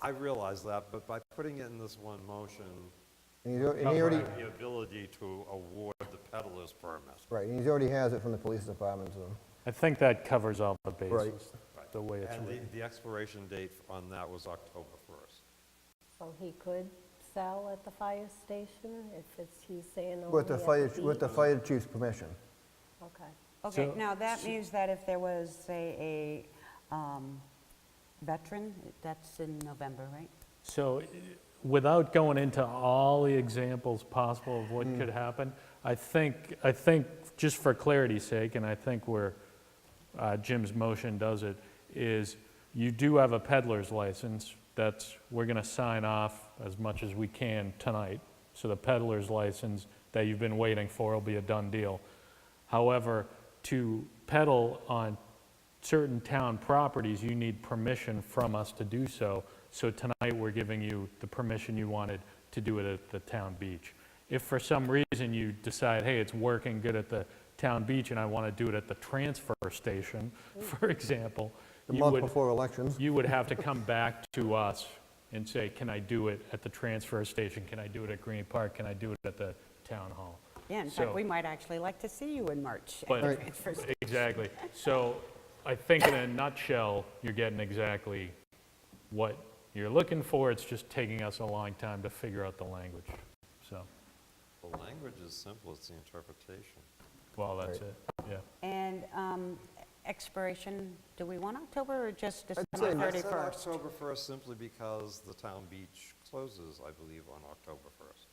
I realize that, but by putting it in this one motion, And he's, al- and he cover already, the ability to award the peddler's permit. right, and he already has it from the police department, so. I think that covers all the Right. bases, the way it's And the, written. the expiration date on that was October 1st. So he could sell at the fire station if it's, he's saying Oh, only With the at fire, ch- with the beach? fire chief's permission. Okay. Okay, So- now that means that if there was, say, a um, veteran, that's in November, right? So eh, without going into all the examples possible of what could happen, I think, I think, just for clarity's sake, and I think where uh, Jim's motion does it, is you do have a peddler's license that's, we're going to sign off as much as we can tonight. So the peddler's license that you've been waiting for will be a done deal. However, to peddle on certain town properties, you need permission from us to do so. So tonight, we're giving you the permission you wanted to do it at the town beach. If for some reason you decide, hey, it's working good at the town beach and I want to do it at the transfer station, for example, The you month would- before elections. you would have to come back to us and say, can I do it at the transfer station? Can I do it at Green Park? Can I do it at the town hall? Yeah, in fact, So- we might actually like to see you in March. at But- the Right. transfer station. Exactly. So I think in a nutshell, you're getting exactly what you're looking for. It's just taking us a long time to figure out the language. So, The language is simple, it's the interpretation. well, that's it, yeah. And um, expiration, do we want October or just December say I said 31st? October 1st simply because the town beach closes, I believe, on October 1st.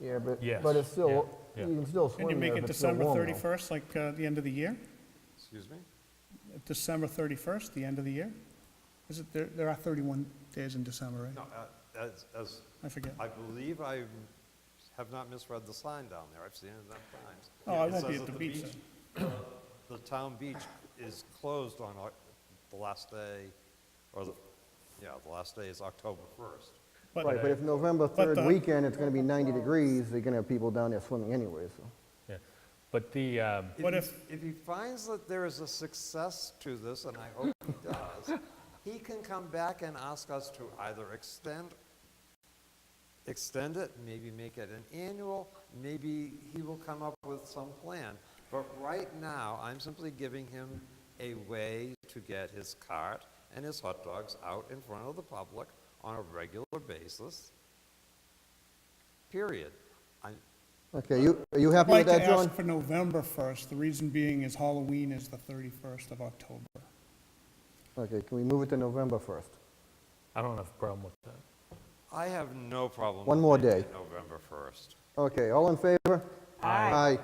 Yeah, but, Yes, but it's still, yeah, you yeah. can still Can you swim make there it if it's still December warm though. 31st, like uh, the end of the year? Excuse me? December 31st, the end of the year? Is it, there There are 31 days in December, right? No, uh, as, as, I forget. I believe I have not misread the sign down there, I've seen it enough times. Oh, I It won't be says at that the beach then. The town beach is closed on Oc- the last day, or the, yeah, the last day is October 1st. Right, but if November But 3rd the- weekend, it's gonna be 90 degrees, they're gonna have people down there swimming anyway, so. yeah. But the, um, What he- if- If he finds that there is a success to this, and I hope he does, he can come back and ask us to either extend, extend it, maybe make it an annual, maybe he will come up with some plan. But right now, I'm simply giving him a way to get his cart and his hot dogs out in front of the public on a regular basis, period. I, Okay, you, are you happy I'd with like that, to John? ask for November 1st. The reason being is Halloween is the 31st of October. Okay, can we move it to November 1st? I don't have a problem with that. I have no problem. One with more making day. it November 1st. Okay, all in favor? Aye.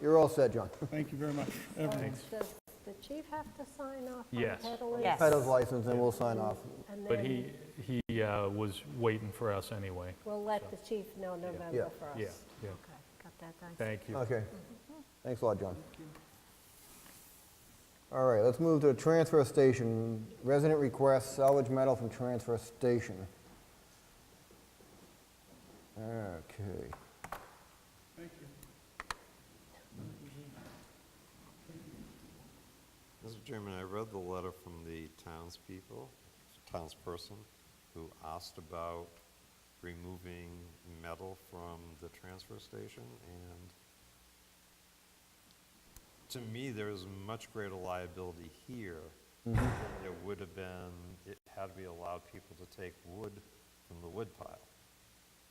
You're all set, John. Thank you very much, everyone. Does the chief have to sign off on Yes. peddlers? Yes. Title's license, and we'll sign off. And But then he, he uh, was waiting for us anyway. we'll let the chief know November Yeah. 1st. Yeah, yeah. Okay, got that done. Thank you. Okay. Thanks a lot, John. All right, let's move to the transfer station. Resident requests salvage metal from transfer station. Okay. Mr. Chairman, I read the letter from the townspeople, townsperson, who asked about removing metal from the transfer station, and to me, there is much greater liability here than there would have been it- had we allowed people to take wood from the wood pile.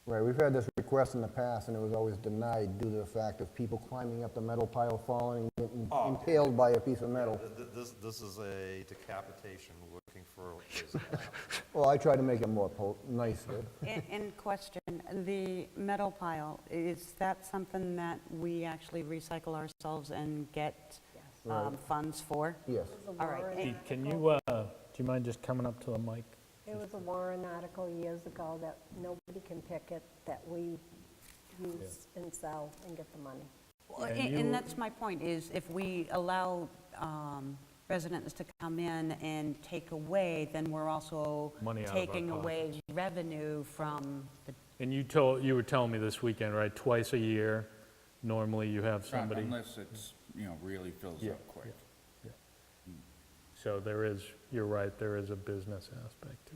Right, we've had this request in the past, and it was always denied due to the fact of people climbing up the metal pile, falling, and getting impaled by a piece of metal. Th- th- This, this is a decapitation looking for, is Well, I tried to make it more pol- nicer. In- In question, the metal pile, is that something that we actually recycle ourselves and get um, funds for? Yes. All right, Pete, Can you, uh, do you mind just coming up to the mic? There was a Warren article years ago that nobody can pick it, that we use and sell and get the money. Well, a- And that's my point, is if we allow um, residents to come in and take away, then we're also Money out of our taking away revenue from the, And you told, you were telling me this weekend, right, twice a year, normally you have Right, somebody? Unless it's, you know, really fills up quick. So there is, you're right, there is a business aspect to it.